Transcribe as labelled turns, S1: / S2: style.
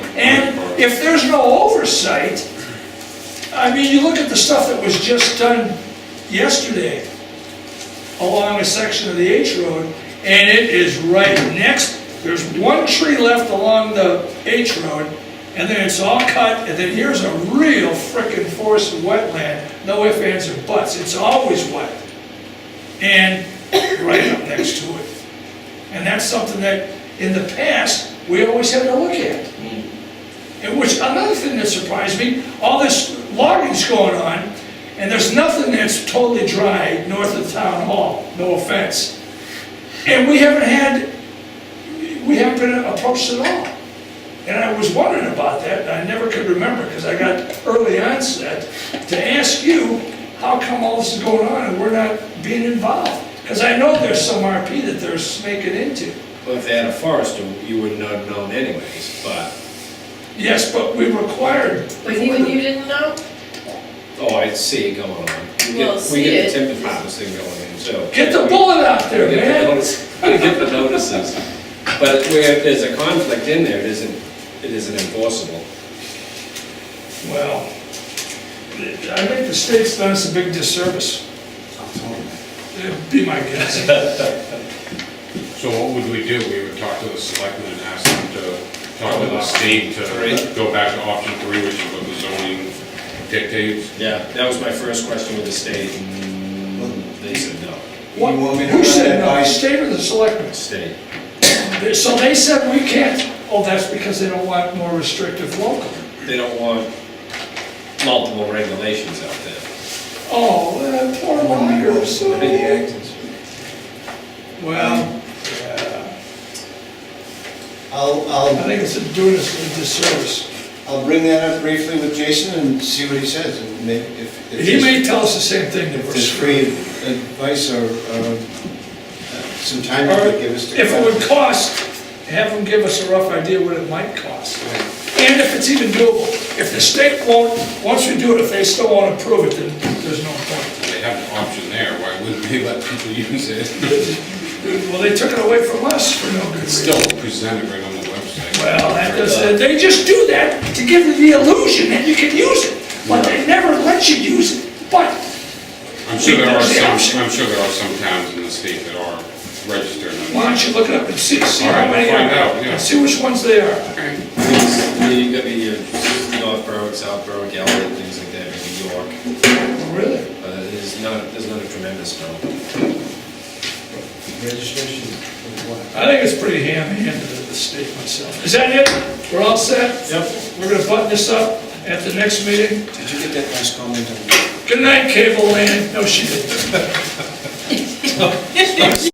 S1: if there's no oversight, I mean, you look at the stuff that was just done yesterday along a section of the H Road, and it is right next, there's one tree left along the H Road, and then it's all cut, and then here's a real frickin' forest and wetland, no ifs, ands, or buts, it's always wet. And right up next to it. And that's something that, in the past, we always had to look at. And which, another thing that surprised me, all this logging's going on, and there's nothing that's totally dry north of Town Hall, no offense. And we haven't had, we haven't been approached at all. And I was wondering about that, and I never could remember, because I got early onset, to ask you, how come all this is going on and we're not being involved? Because I know there's some RP that they're snaking into.
S2: Well, if they had a forester, you wouldn't have known anyways, but,
S1: Yes, but we required.
S3: But even you didn't know?
S2: oh, I see it going on. We
S3: Well,
S2: get-
S3: see
S2: We get
S3: it.
S2: the timber harvest thing going in, so.
S1: Get the bullet out there,
S2: We get the
S1: man.
S2: notice- we get the notices, but where there's a conflict in there, it isn't, it isn't enforceable.
S1: Well, I think the state's done us a big disservice. It'd Be my guess.
S4: So what would we do? We would talk to the selectmen and ask them to talk to the state to go back to option three, which is what the zoning dictates.
S2: Yeah. That was my first question with the state, and they said no,
S1: What-
S5: You want me to
S1: Who said no, the
S5: advise-
S1: state or the selectmen?
S2: state.
S1: They- So they said we can't, oh, that's because they don't want more restrictive local.
S2: They don't want multiple regulations out there.
S1: Oh, uh, poor loggers.
S5: Under the act, it's-
S1: Well,
S5: I'll,
S1: I
S5: I'll,
S1: think it's doing us a disservice.
S5: I'll bring that up briefly with Jason and see what he says, and may- if. if
S1: He
S5: he's-
S1: may tell us the same thing that
S5: If
S1: we're
S5: there's
S1: screwed.
S5: free advice or, or uh, some time you
S1: Or
S5: could give us to.
S1: if it would cost, have them give us a rough idea what it might cost. And if it's even doable. If the state won't, once we do it, if they still won't approve it, then there's no point.
S4: They have an option there, why wouldn't they let people use it?
S1: Well, they took it away from us for no good reason.
S4: Still presented right on the website.
S1: Well, that does, uh, they just do that to give you the illusion that you can use it, but they never let you use it. But
S4: I'm sure there are
S1: There's the option.
S4: some, I'm sure there are some towns in the state that are registered.
S1: why don't you look it up and see, see
S4: All
S1: how
S4: right,
S1: many
S4: we'll find
S1: are,
S4: out, yeah.
S1: and see which ones they are.
S2: You got your North Berwick, South Berwick, Elliott, things like that, maybe York.
S1: Really?
S2: Uh, There's not, there's not a tremendous amount.
S5: Registration of what?
S1: I think it's pretty ham-handed at the state myself. Is that it? We're all set?
S2: Yep.
S1: We're gonna button this up at the next meeting.
S5: Did you get that last comment on?
S1: Good night, cable land. No, she didn't.